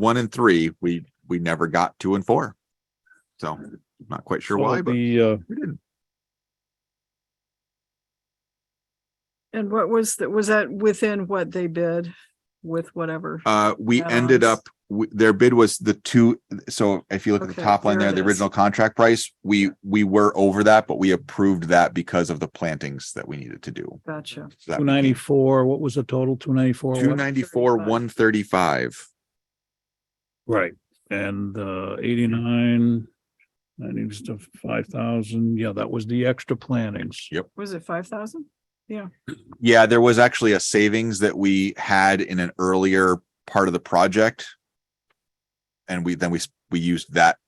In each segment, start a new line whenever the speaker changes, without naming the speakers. one and three, we, we never got two and four. So not quite sure
So
why, but
The, uh,
we didn't.
And what was that, was that within what they bid with whatever?
Uh, we
Add-ons.
ended up, w- their bid was the two, so if you look at the
Okay,
top line there,
there it
the
is.
original contract price, we, we were over that, but we approved that because of the plantings that we needed to do.
Gotcha.
So that
two ninety-four, what was the total? Two ninety-four?
Two ninety-four, one thirty-five.
Right, and, uh, eighty-nine, ninety to five thousand. Yeah, that was the extra plantings.
Yep.
Was it five thousand?
Yeah, there was actually a savings that we had in an earlier part of the project. And we, then we, s- we used that,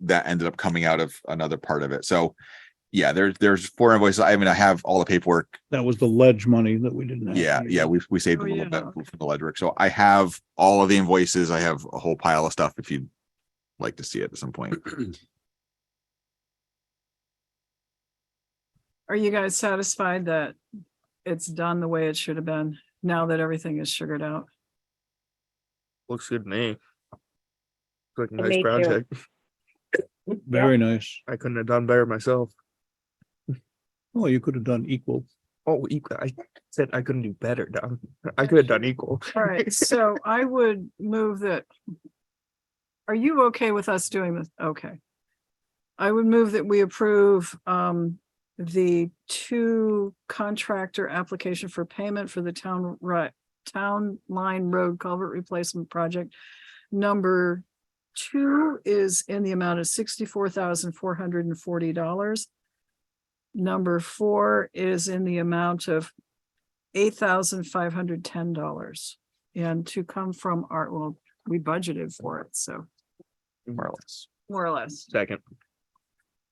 that ended up coming out of another part of it. So yeah, there's, there's four invoices. I mean, I have all the paperwork.
That was the ledge money that we didn't have.
Yeah, yeah, we, we saved a
Oh,
little
yeah,
bit
okay.
from the ledger. So I have all of the invoices. I have a whole pile of stuff if you'd like to see it at some point.
Are you guys satisfied that it's done the way it should have been now that everything is sugared out?
Looks good to me. Looks Like a
And me
nice
too.
project.
Very nice.
I couldn't have done better myself.
Well, you could have done equal.
Oh, equal. I said I couldn't do better, Don. I could have done equal.
All right, so I would move that. Are you okay with us doing this? Okay. I would move that we approve um the two contractor application for payment for the town right town line road culvert replacement project. Number two is in the amount of sixty-four thousand four hundred and forty dollars. Number four is in the amount of eight thousand five hundred ten dollars. And to come from our, well, we budgeted for it, so
More or less.
more or less.
Second.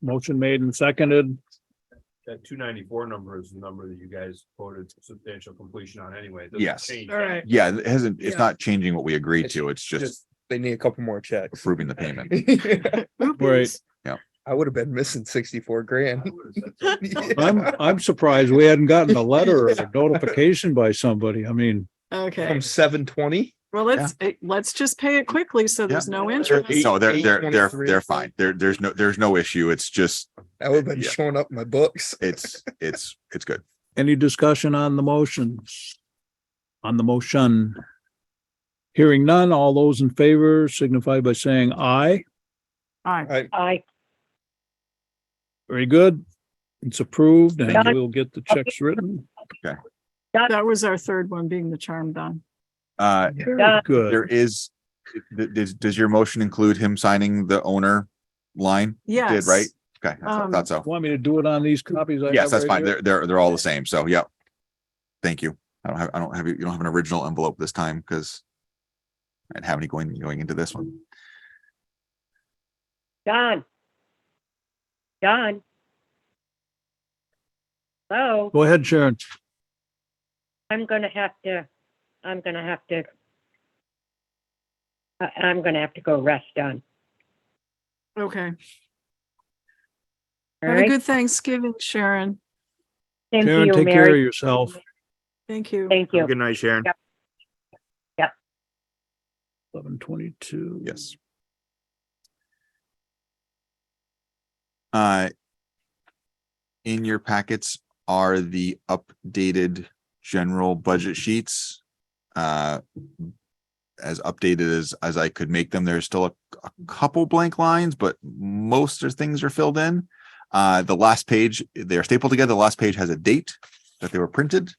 Motion made and seconded.
That two ninety-four number is the number that you guys quoted substantial completion on anyway. It doesn't
Yes.
change
All
that.
right,
Yeah, it hasn't, it's
Yeah.
not changing what we agreed to. It's just
Just, they need a couple more checks.
approving the payment.
Right.
I would have been missing sixty-four
I
grand.
would've said something.
I'm, I'm surprised we hadn't gotten a letter or a notification by somebody. I mean,
okay,
From seven twenty?
well, let's, eh, let's just pay it quickly so there's no interest.
No, they're,
eight
they're, they're,
23.
they're fine. There, there's no, there's no issue. It's just,
I would have been
Yeah.
showing up in my books.
it's, it's, it's good.
any discussion on the motions? On the motion? Hearing none, all those in favor signify by saying aye.
All right,
I,
I,
Very good. It's approved and
Done.
we'll get the checks written.
that was our third one being the charm done.
Uh,
Very
Done.
There
good.
is, th- does, does your motion include him signing the owner line? It
Yes.
Did, right? Okay, I
Um,
thought so.
Want me to do it on these copies? I have
Yes, that's
right
fine.
here?
They're, they're, they're all the same. So, yep. Thank you. I don't have, I don't have, you don't have an original envelope this time because I didn't have any going, going into this one.
Don. Don. Hello,
Go ahead, Sharon.
I'm gonna have to, I'm gonna have to. I, I'm gonna have to go rest, Don.
Okay,
All
have a
right?
good Thanksgiving, Sharon.
Same to
Sharon,
you,
take care of
Mary.
yourself.
Thank you.
Thank you.
good night, Sharon.
Eleven twenty-two.
Yes. Uh, in your packets are the updated general budget sheets. Uh, as updated as, as I could make them, there's still a, a couple blank lines, but most of things are filled in. Uh, the last page, they're stapled together. The last page has a date that they were printed.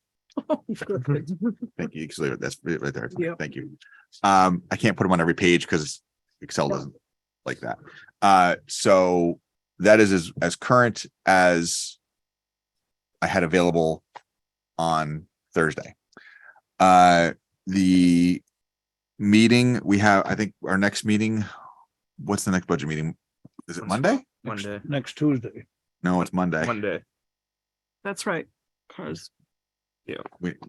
Thank you. 'cause there- That's right right there.
Yep.
Thank you. Um, I can't put them on every page because Excel
Yeah.
doesn't like that. Uh, so that is as, as current as I had available on Thursday. Uh, the meeting we have, I think our next meeting, what's the next budget meeting? Is it Monday?
Monday,
Next Tuesday.
No, it's Monday.
Monday.
That's right. 'Cause-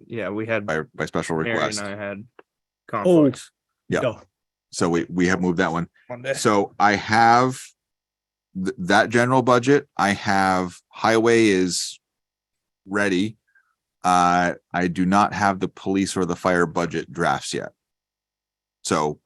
Yeah, we had,
By, by special
Mary and
request. Oh.
I had
Oh,
conflicts.
Yeah.
No.
So we, we have moved that one.
Monday.
So I have th- that general budget. I have highway is ready. Uh, I do not have the police or the fire budget drafts yet. So